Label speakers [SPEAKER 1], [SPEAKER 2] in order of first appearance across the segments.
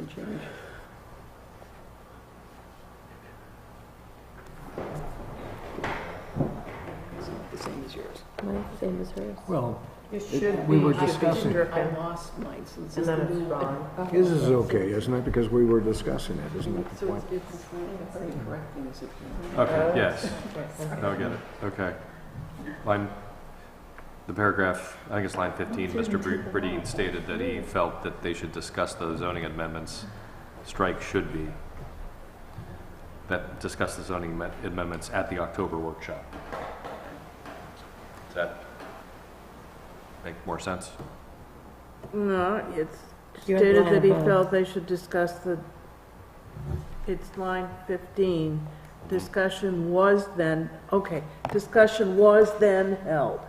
[SPEAKER 1] Right. It's not the same as yours.
[SPEAKER 2] Mine's the same as hers.
[SPEAKER 3] Well,
[SPEAKER 1] It
[SPEAKER 4] should
[SPEAKER 3] we
[SPEAKER 4] be-
[SPEAKER 3] were
[SPEAKER 4] should be
[SPEAKER 3] discussing-
[SPEAKER 4] stricken.
[SPEAKER 1] I lost mine, so this
[SPEAKER 4] And
[SPEAKER 1] is
[SPEAKER 4] then
[SPEAKER 1] the
[SPEAKER 4] it's
[SPEAKER 1] new one.
[SPEAKER 4] gone.
[SPEAKER 3] his is okay, isn't it? Because we were discussing it, isn't it? the
[SPEAKER 1] So
[SPEAKER 3] point?
[SPEAKER 1] it's, it's, it's incorrecting, is it? Uh,
[SPEAKER 5] Okay, yes. Now I get it, okay. Line, the paragraph, I guess line 15, Mr. Bre- Bradeen stated that he felt that they should discuss the zoning amendments, strike should be, that discuss the zoning amen- amendments at the October workshop. Does that make more sense?
[SPEAKER 4] No, it's
[SPEAKER 2] You had
[SPEAKER 4] stated
[SPEAKER 2] one
[SPEAKER 4] that he
[SPEAKER 2] above.
[SPEAKER 4] felt they should discuss the, it's line fifteen. Discussion was then, okay, discussion was then held.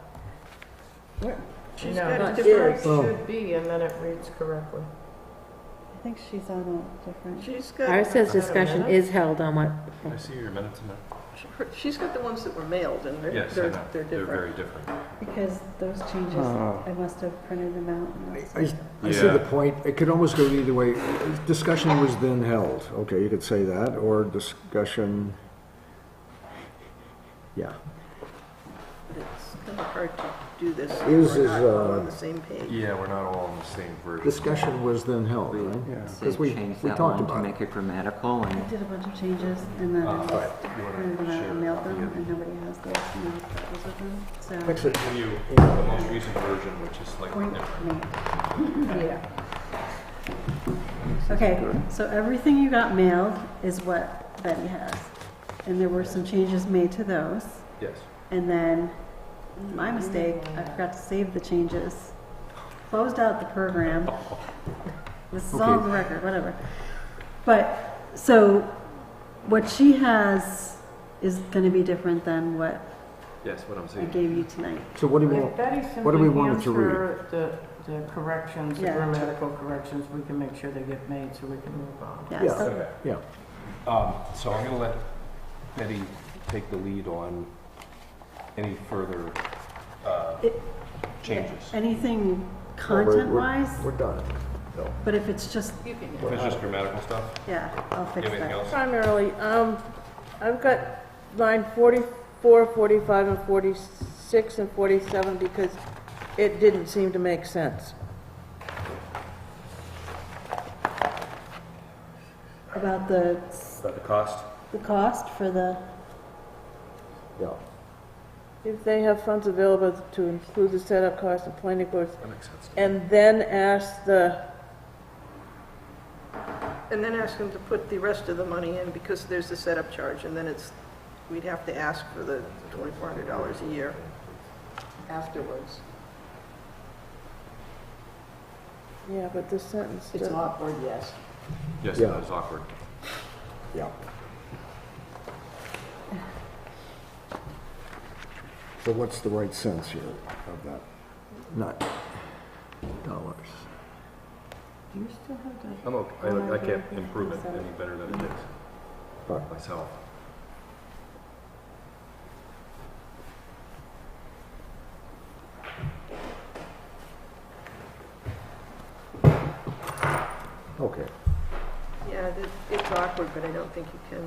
[SPEAKER 6] She's
[SPEAKER 4] No,
[SPEAKER 6] got
[SPEAKER 4] not
[SPEAKER 6] a different,
[SPEAKER 4] is.
[SPEAKER 3] Oh.
[SPEAKER 6] should be, and then it reads correctly.
[SPEAKER 7] I think she's on a different.
[SPEAKER 6] She's got.
[SPEAKER 2] Ours says
[SPEAKER 6] I don't
[SPEAKER 2] discussion
[SPEAKER 6] know.
[SPEAKER 2] is held on what,
[SPEAKER 5] I see your minutes in there.
[SPEAKER 1] Her- She's got the ones that were mailed, and they're,
[SPEAKER 5] Yes, I
[SPEAKER 1] they're,
[SPEAKER 5] know.
[SPEAKER 1] they're
[SPEAKER 5] They're
[SPEAKER 1] different.
[SPEAKER 5] very different.
[SPEAKER 7] Because those changes,
[SPEAKER 5] Oh.
[SPEAKER 3] Ah.
[SPEAKER 7] I must have printed them out. and
[SPEAKER 3] I,
[SPEAKER 7] that's-
[SPEAKER 3] I I see
[SPEAKER 5] Yeah.
[SPEAKER 3] the point. It could almost go either way. Discussion was then held. Okay, you could say that, or discussion. Yeah,
[SPEAKER 1] It's kind of hard to do this. if
[SPEAKER 3] Yours
[SPEAKER 1] we're
[SPEAKER 3] is,
[SPEAKER 1] not all
[SPEAKER 3] uh,
[SPEAKER 1] On the same page.
[SPEAKER 5] Yeah, we're not all on the same version.
[SPEAKER 3] discussion was then held, right?
[SPEAKER 8] So
[SPEAKER 3] 'Cause we-
[SPEAKER 8] change
[SPEAKER 3] we
[SPEAKER 8] that
[SPEAKER 3] talked
[SPEAKER 8] one to
[SPEAKER 3] about it.
[SPEAKER 8] make it grammatical
[SPEAKER 7] I
[SPEAKER 8] and
[SPEAKER 7] did a bunch of changes and then I
[SPEAKER 5] Uh,
[SPEAKER 7] just
[SPEAKER 5] you wanna
[SPEAKER 7] printed them out
[SPEAKER 5] share
[SPEAKER 7] and mailed
[SPEAKER 5] copy
[SPEAKER 7] them
[SPEAKER 5] of-
[SPEAKER 7] and nobody has those, and I thought those with them, so.
[SPEAKER 3] Actually,
[SPEAKER 5] Give you the most recent version, which is slightly
[SPEAKER 7] Point
[SPEAKER 5] different.
[SPEAKER 7] made. Yeah. Okay, so everything you got mailed is what Betty has. And there were some changes made to those.
[SPEAKER 5] Yes.
[SPEAKER 7] And then, my mistake, I forgot to save the changes. Closed out the program. This is all on the record, whatever. But, so, what she has is gonna be different than what
[SPEAKER 5] Yes, what I'm
[SPEAKER 7] I
[SPEAKER 5] saying.
[SPEAKER 7] gave you tonight.
[SPEAKER 3] So what do you
[SPEAKER 6] If
[SPEAKER 3] want?
[SPEAKER 6] Betty
[SPEAKER 3] what do we
[SPEAKER 6] simply
[SPEAKER 3] want it
[SPEAKER 6] hands
[SPEAKER 3] to read?
[SPEAKER 6] her the, the corrections, the
[SPEAKER 7] Yeah.
[SPEAKER 6] grammatical corrections, we can make sure they get made so we can move on.
[SPEAKER 7] Yeah,
[SPEAKER 3] Yeah.
[SPEAKER 7] so-
[SPEAKER 5] Okay.
[SPEAKER 3] Yeah.
[SPEAKER 5] Um, so I'm gonna let Betty take the lead on any further, uh,
[SPEAKER 7] It-
[SPEAKER 5] changes.
[SPEAKER 7] anything
[SPEAKER 3] Well, we're- we're-
[SPEAKER 7] content-wise,
[SPEAKER 3] We're done. No.
[SPEAKER 7] but if it's just,
[SPEAKER 1] You can
[SPEAKER 5] If it's just grammatical stuff,
[SPEAKER 7] yeah, I'll
[SPEAKER 5] you
[SPEAKER 7] fix
[SPEAKER 5] have anything
[SPEAKER 7] that.
[SPEAKER 5] else?
[SPEAKER 4] Primarily, um, I've got line 44, 45, and 46 and 47 because it didn't seem to make sense.
[SPEAKER 7] About the,
[SPEAKER 5] About the cost?
[SPEAKER 7] the cost for the,
[SPEAKER 3] Yeah.
[SPEAKER 4] If they have funds available to include the setup cost of planning boards,
[SPEAKER 5] That makes sense.
[SPEAKER 4] and then ask the,
[SPEAKER 1] And then ask them to put the rest of the money in, because there's the setup charge, and then it's, we'd have to ask for the twenty-four hundred dollars a year afterwards.
[SPEAKER 4] yeah, but this sentence,
[SPEAKER 1] It's
[SPEAKER 4] does-
[SPEAKER 1] awkward, yes.
[SPEAKER 5] Yes,
[SPEAKER 3] Yeah.
[SPEAKER 5] that is awkward.
[SPEAKER 3] Yeah. So what's the right sense here of that? Not dollars.
[SPEAKER 7] do you still have the?
[SPEAKER 5] I'm okay, I, I can't improve it any better than it is
[SPEAKER 3] But
[SPEAKER 5] myself.
[SPEAKER 3] Okay.
[SPEAKER 1] Yeah, it- it's awkward, but I don't think you can.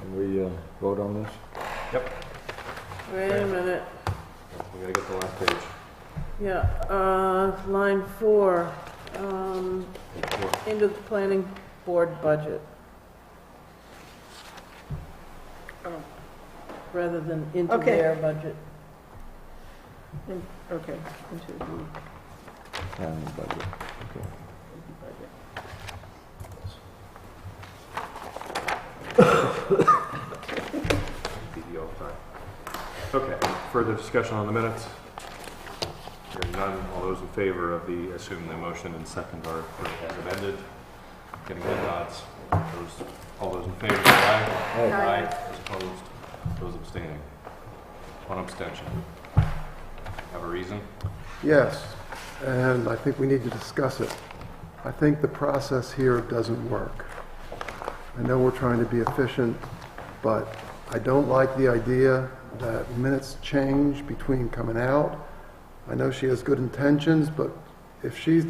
[SPEAKER 3] Can we uh, vote on this?
[SPEAKER 4] wait a minute,
[SPEAKER 5] We gotta get the last page.
[SPEAKER 4] yeah, uh, line four, um,
[SPEAKER 5] Four.
[SPEAKER 4] into the planning board budget.
[SPEAKER 1] Oh.
[SPEAKER 4] Rather than into
[SPEAKER 1] Okay.
[SPEAKER 4] their budget.
[SPEAKER 1] Okay, into the
[SPEAKER 3] And uh, the budget.
[SPEAKER 1] budget.
[SPEAKER 5] PD all the time. Okay, further discussion on the minutes? Hearing none, all those in favor of the, assume the motion and second are as amended, getting the nods. Those, all those in favor, aye?
[SPEAKER 1] Aye.
[SPEAKER 5] Those opposed, those abstaining. One abstention. Have a reason?
[SPEAKER 9] Yes, and I think we need to discuss it. I think the process here doesn't work. I know we're trying to be efficient, but I don't like the idea that minutes change between coming out. I know she has good intentions, but if she's